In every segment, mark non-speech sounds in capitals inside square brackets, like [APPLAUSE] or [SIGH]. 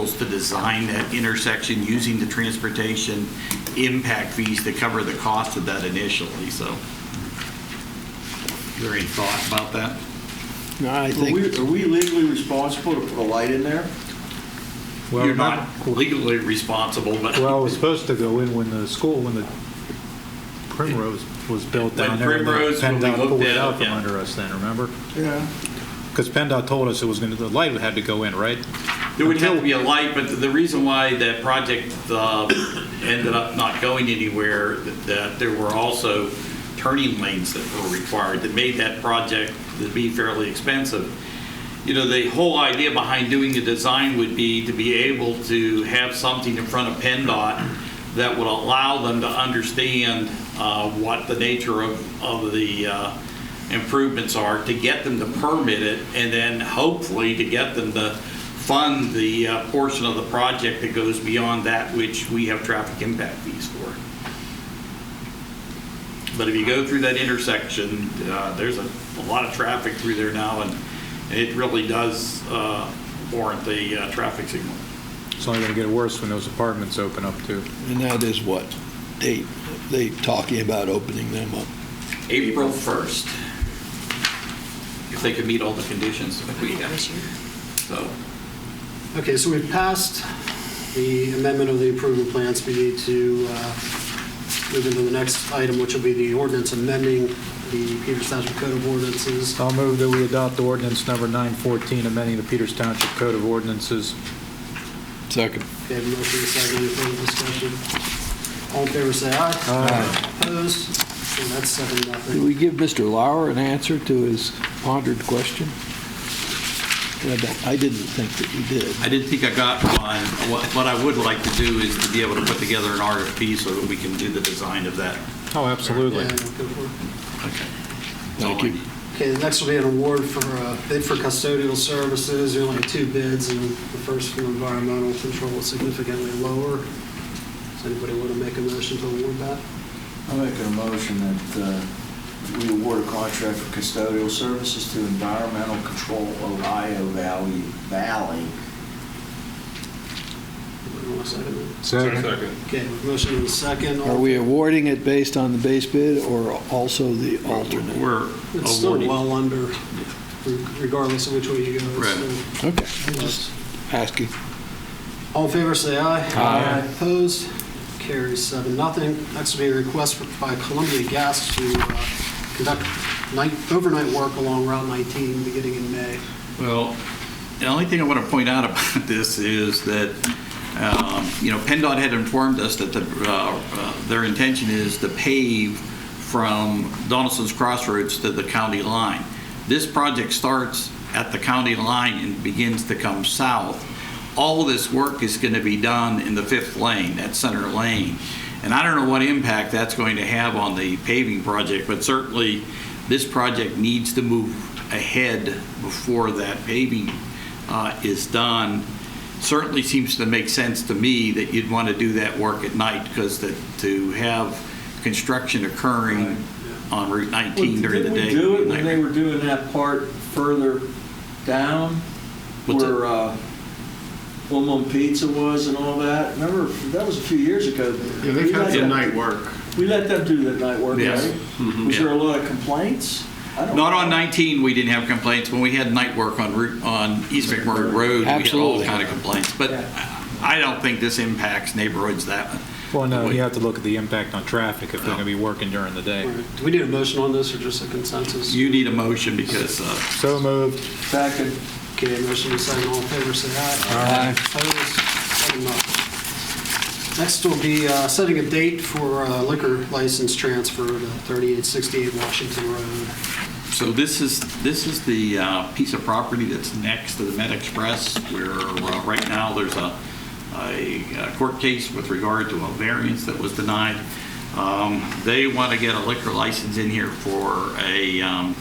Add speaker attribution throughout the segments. Speaker 1: goals to design that intersection using the transportation impact fees to cover the cost of that initially, so. Is there any thought about that?
Speaker 2: No, I
Speaker 3: Are
Speaker 2: think,
Speaker 3: we, are we legally responsible to put a light in there?
Speaker 4: Well,
Speaker 1: You're not legally responsible, but.
Speaker 4: Well, it was supposed to go in when the school, when the Primrose was built
Speaker 1: When
Speaker 4: down there. and
Speaker 1: Primrose, when we
Speaker 4: PennDOT pulled
Speaker 1: looked
Speaker 4: it
Speaker 1: at
Speaker 4: out
Speaker 1: it,
Speaker 4: from
Speaker 1: yeah.
Speaker 4: under us then, remember?
Speaker 3: Yeah.
Speaker 4: Because PennDOT told us it was going to, the light had to go in, right?
Speaker 1: There would have to be a light, but the reason why that project uh, ended up not going anywhere, that there were also turning lanes that were required that made that project to be fairly expensive. You know, the whole idea behind doing the design would be to be able to have something in front of PennDOT that would allow them to understand uh, what the nature of, of the uh, improvements are, to get them to permit it, and then hopefully to get them to fund the uh, portion of the project that goes beyond that which we have traffic impact fees for. But if you go through that intersection, uh, there's a a lot of traffic through there now, and and it really does uh, warrant the uh, traffic signal.
Speaker 4: It's only going to get worse when those apartments open up too.
Speaker 2: and that is what they, they talking about opening them up.
Speaker 1: April 1st, if they could meet all the conditions that we have. So,
Speaker 5: Okay, so we've passed the amendment of the improvement plans. We need to uh, move into the next item, which will be the ordinance amending the Peters Township Code of Ordinances.
Speaker 4: I'll move that we adopt ordinance number 914, amending the Peters Township Code of Ordinances.
Speaker 2: Second.
Speaker 5: Okay, motion and second, any further discussion? All in favor, say aye.
Speaker 4: Aye.
Speaker 5: Opposed? Okay, that's seven,
Speaker 2: Did
Speaker 5: nothing.
Speaker 2: we give Mr. Lauer an answer to his pondered question? I don't- I didn't think that we did.
Speaker 1: I didn't think I got one. What what I would like to do is to be able to put together an RFP so that we can do the design of that.
Speaker 4: Oh,
Speaker 5: Yeah,
Speaker 4: absolutely.
Speaker 5: go for it.
Speaker 1: Okay.
Speaker 2: Thank you.
Speaker 5: Okay, the next will be an award for uh, bid for custodial services. There are only two bids, and the first from environmental control is significantly lower. Does anybody want to make a motion to award that?
Speaker 3: I'll make a motion that uh, we award a contract for custodial services to Environmental Control Ohio Valley, Valley.
Speaker 5: Anybody want to second it?
Speaker 4: Second.
Speaker 5: Okay, motion and a second.
Speaker 2: Are we awarding it based on the base bid or also the alternate?
Speaker 1: We're
Speaker 5: It's still
Speaker 1: awarding.
Speaker 5: well under, regardless of which way you go. it's
Speaker 1: Right.
Speaker 5: still-
Speaker 2: Okay, just asking.
Speaker 5: All in favor, say aye.
Speaker 4: Aye.
Speaker 5: Opposed? Carries seven, nothing. Next will be a request by Columbia Gas to uh, conduct night, overnight work along Route 19 beginning in May.
Speaker 1: Well, the only thing I want to point out [LAUGHS] about this is that, um, you know, PennDOT had informed us that the, uh, uh, their intention is to pave from Donaldson's Crossroads to the county line. This project starts at the county line and begins to come south. All this work is going to be done in the fifth lane, that center lane. And I don't know what impact that's going to have on the paving project, but certainly this project needs to move ahead before that paving uh, is done. Certainly seems to make sense to me that you'd want to do that work at night because to have construction occurring on Route 19 during the day.
Speaker 6: Didn't we do it when they were doing that part further down
Speaker 1: What's that?
Speaker 6: where uh, One Mum Pizza was and all that? Remember, that was a few years ago. Yeah, they've had the night work. We let them do the night work,
Speaker 1: Yes.
Speaker 3: Mm-hmm,
Speaker 6: right? Was there a lot of complaints? I don't
Speaker 1: Not
Speaker 6: know.
Speaker 1: on 19, we didn't have complaints. When we had night work on Route, on East McMurray Road, we had all
Speaker 2: Absolutely.
Speaker 1: kind of complaints. But
Speaker 6: Yeah.
Speaker 1: I don't think this impacts neighborhoods that.
Speaker 4: Well, no, you have to look at the impact on traffic if they're going to be working during the day.
Speaker 5: Do we need a motion on this or just a consensus?
Speaker 1: You need a motion because, uh,
Speaker 4: So moved.
Speaker 6: Second,
Speaker 5: Okay, motion is second, all in favor, say aye. Aye. Opposed? Seven, nothing. Next will be uh, setting a date for uh, liquor license transfer to 3868 Washington Road.
Speaker 1: so this is, this is the uh, piece of property that's next to the Med Express where uh, right now there's a, a court case with regard to a variance that was denied. Um, They want to get a liquor license in here for a, um,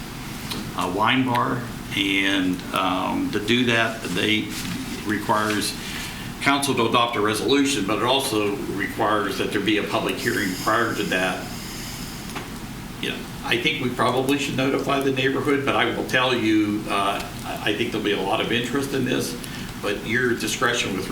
Speaker 1: a wine bar, and um, to do that, they requires council to adopt a resolution, but it also requires that there be a public hearing prior to that. You know, I think we probably should notify the neighborhood, but I will tell you, uh, I I think there'll be a lot of interest in this, but your discretion with